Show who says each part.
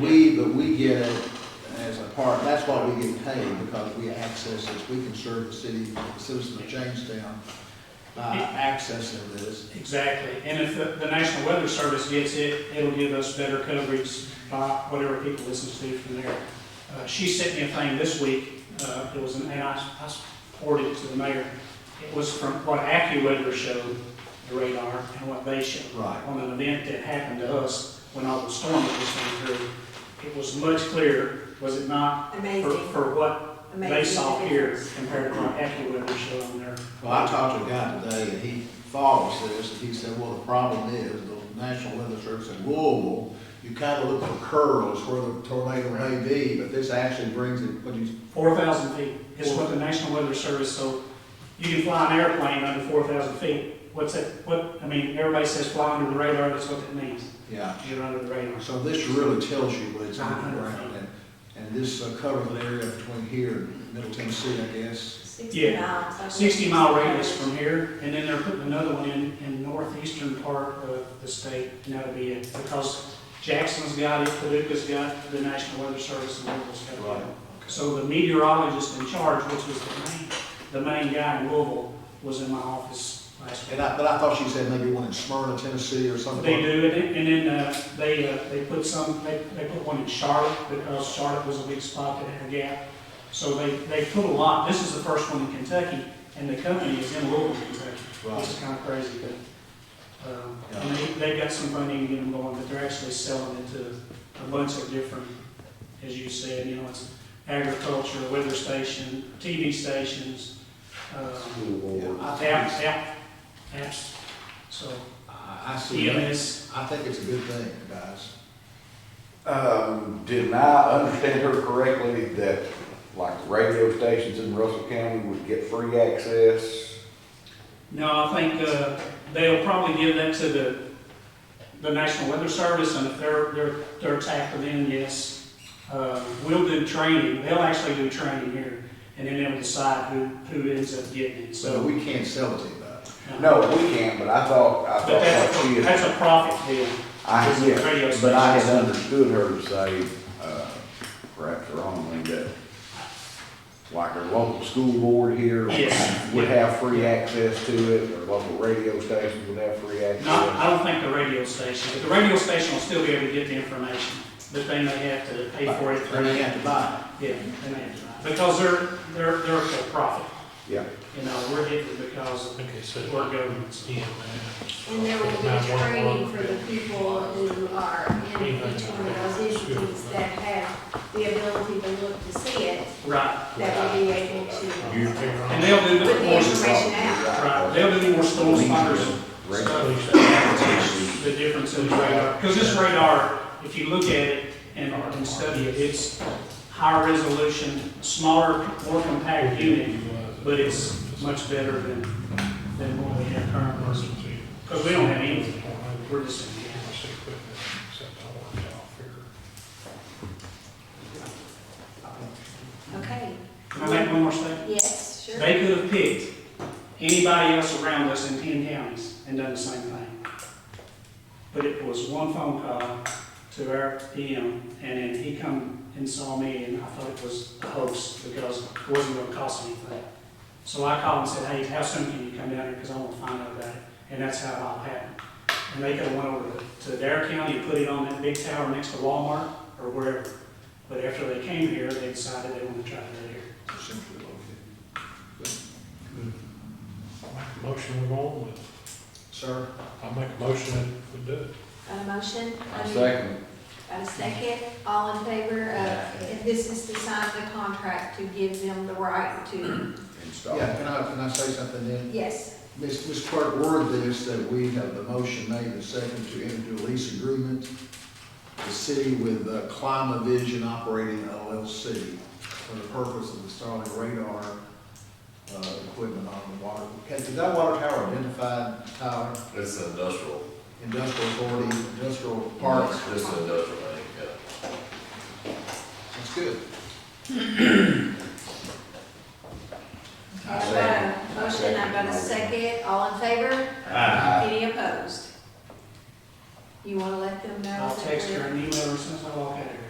Speaker 1: We, but we get it as a part, that's why we get paid, because we access this, we can serve the city, citizens of Jamestown by accessing this.
Speaker 2: Exactly, and if the, the National Weather Service gets it, it'll give us better coverage by whatever people listen to from there. Uh, she sent me a thing this week, uh, it was, an- and I, I forwarded it to the mayor. It was from what AccuWeather showed, the radar, and what they showed.
Speaker 1: Right.
Speaker 2: On an event that happened to us when all the storm was coming through, it was much clearer, was it not, for,
Speaker 3: Amazing,
Speaker 2: for what they
Speaker 3: amazing
Speaker 2: saw here
Speaker 3: difference.
Speaker 2: compared to what AccuWeather showed on there.
Speaker 1: Well, I talked to a guy today, and he follows this, and he said, well, the problem is, the National Weather Service in Louisville, you kind of look for curls where the tornado may be, but this actually brings it, what you,
Speaker 2: Four thousand feet is what the National Weather Service, so you can fly an airplane under four thousand feet. What's that, what, I mean, everybody says fly under the radar, that's what that means,
Speaker 1: yeah.
Speaker 2: you're under the radar.
Speaker 1: So this really tells you what it's on the ground, and, and this uh, covers the area between here and Middle Tennessee, I guess.
Speaker 3: Sixty
Speaker 2: Yeah.
Speaker 3: miles. I think.
Speaker 2: Sixty mile radius from here, and then they're putting another one in, in northeastern part of the state, and that'll be it. Because Jackson's got it, Paducah's got it, the National Weather Service, and Louisville's got
Speaker 1: Right.
Speaker 2: it. So the meteorologist in charge, which was the main, the main guy in Louisville, was in my office last week.
Speaker 1: And I, but I thought she said maybe one in Smyrna, Tennessee or something.
Speaker 2: They do, and then- and then uh, they, uh, they put some, they, they put one in Charlotte, because Charlotte was a big spot that had a gap. So they, they put a lot, this is the first one in Kentucky, and the company is in Louisville, Kentucky. Which is
Speaker 1: Right.
Speaker 2: kind of crazy, but, um, and they, they've got some funding to get them going, but they're actually selling it to a bunch of different, as you said, you know, it's agriculture, weather station, TV stations, um, app- app, apps, so E
Speaker 1: I, I see that.
Speaker 2: EMS.
Speaker 1: I think it's a good thing, guys.
Speaker 4: Um, did I understand her correctly that like radio stations in Russell County would get free access?
Speaker 2: No, I think uh, they'll probably give that to the, the National Weather Service, and if they're, they're, they're tackled in, yes. Uh, We'll do training, they'll actually do training here, and then they'll decide who, who ends up getting it,
Speaker 1: So
Speaker 2: so.
Speaker 1: we can't sell it to anybody.
Speaker 2: uh,
Speaker 4: No, we can't, but I thought, I
Speaker 2: But
Speaker 4: thought
Speaker 2: that's,
Speaker 4: like she
Speaker 2: that's
Speaker 4: is.
Speaker 2: a profit deal.
Speaker 4: I,
Speaker 2: it's a radio
Speaker 4: yeah, but I had
Speaker 2: station.
Speaker 4: understood her to say, uh, perhaps wrongly, that like our local school board here
Speaker 2: Yes.
Speaker 4: would have free access to it, or local radio stations would have free
Speaker 2: Not,
Speaker 4: access.
Speaker 2: I don't think the radio station, but the radio station will still be able to get the information, but they may have to pay for it.
Speaker 1: They may have to buy
Speaker 2: Yeah, they may have to, because they're, they're, they're for profit,
Speaker 4: Yeah,
Speaker 2: you know, we're hitting because of
Speaker 5: Okay, so
Speaker 2: we're government, so.
Speaker 5: EMA,
Speaker 3: And there will be training for the people who are in each one of those entities that have the ability to look to see it,
Speaker 2: Right,
Speaker 3: that will be able to.
Speaker 5: you figure
Speaker 2: and
Speaker 5: out.
Speaker 2: they'll do
Speaker 3: Put
Speaker 2: the
Speaker 3: the
Speaker 2: more,
Speaker 3: information out.
Speaker 2: right, they'll do more storm spotters and stuff, that teach the difference in the radar. Because this radar, if you look at it and, and study it, it's higher resolution, smaller, more compact unit, but it's much better than, than what we have currently. Because we don't have anything, we're just in the house.
Speaker 3: Okay,
Speaker 2: Can I make one more statement?
Speaker 3: yes, sure.
Speaker 2: They could have picked anybody else around us in ten counties and done the same thing. But it was one phone call to our PM, and then he come and saw me, and I thought it was a hoax, because it wasn't gonna cost anything. So I called and said, hey, how soon can you come down here, because I wanna find out about it, and that's how it all happened. And they could have went over to Dare County and put it on that big tower next to Walmart, or wherever. But after they came here, they decided they wanted to try to do it here.
Speaker 1: essentially what we
Speaker 5: Motion we go on with,
Speaker 1: do. Sir?
Speaker 5: I make a motion that we do it.
Speaker 3: Got a motion?
Speaker 4: I second.
Speaker 3: Got a second? All in favor of, if this is to sign the contract to give them the right to,
Speaker 4: Install.
Speaker 1: Yeah, can I, can I say something then?
Speaker 3: yes,
Speaker 1: Ms. Ms. Clerk, word this, that we have the motion made and second to enter into a lease agreement, the city with uh, Climavision Operating LLC for the purpose of installing radar uh, equipment on the water. Okay, Is that water tower identified, Tyler?
Speaker 6: It's an industrial,
Speaker 1: industrial authority, industrial parks.
Speaker 6: just an industrial, I think, yeah.
Speaker 1: That's good.
Speaker 3: I've got a motion, I've got a second, all in favor? Any opposed? You wanna let them know?
Speaker 2: I'll
Speaker 3: that
Speaker 2: text
Speaker 3: we're-
Speaker 2: her and email her since I walk out of here.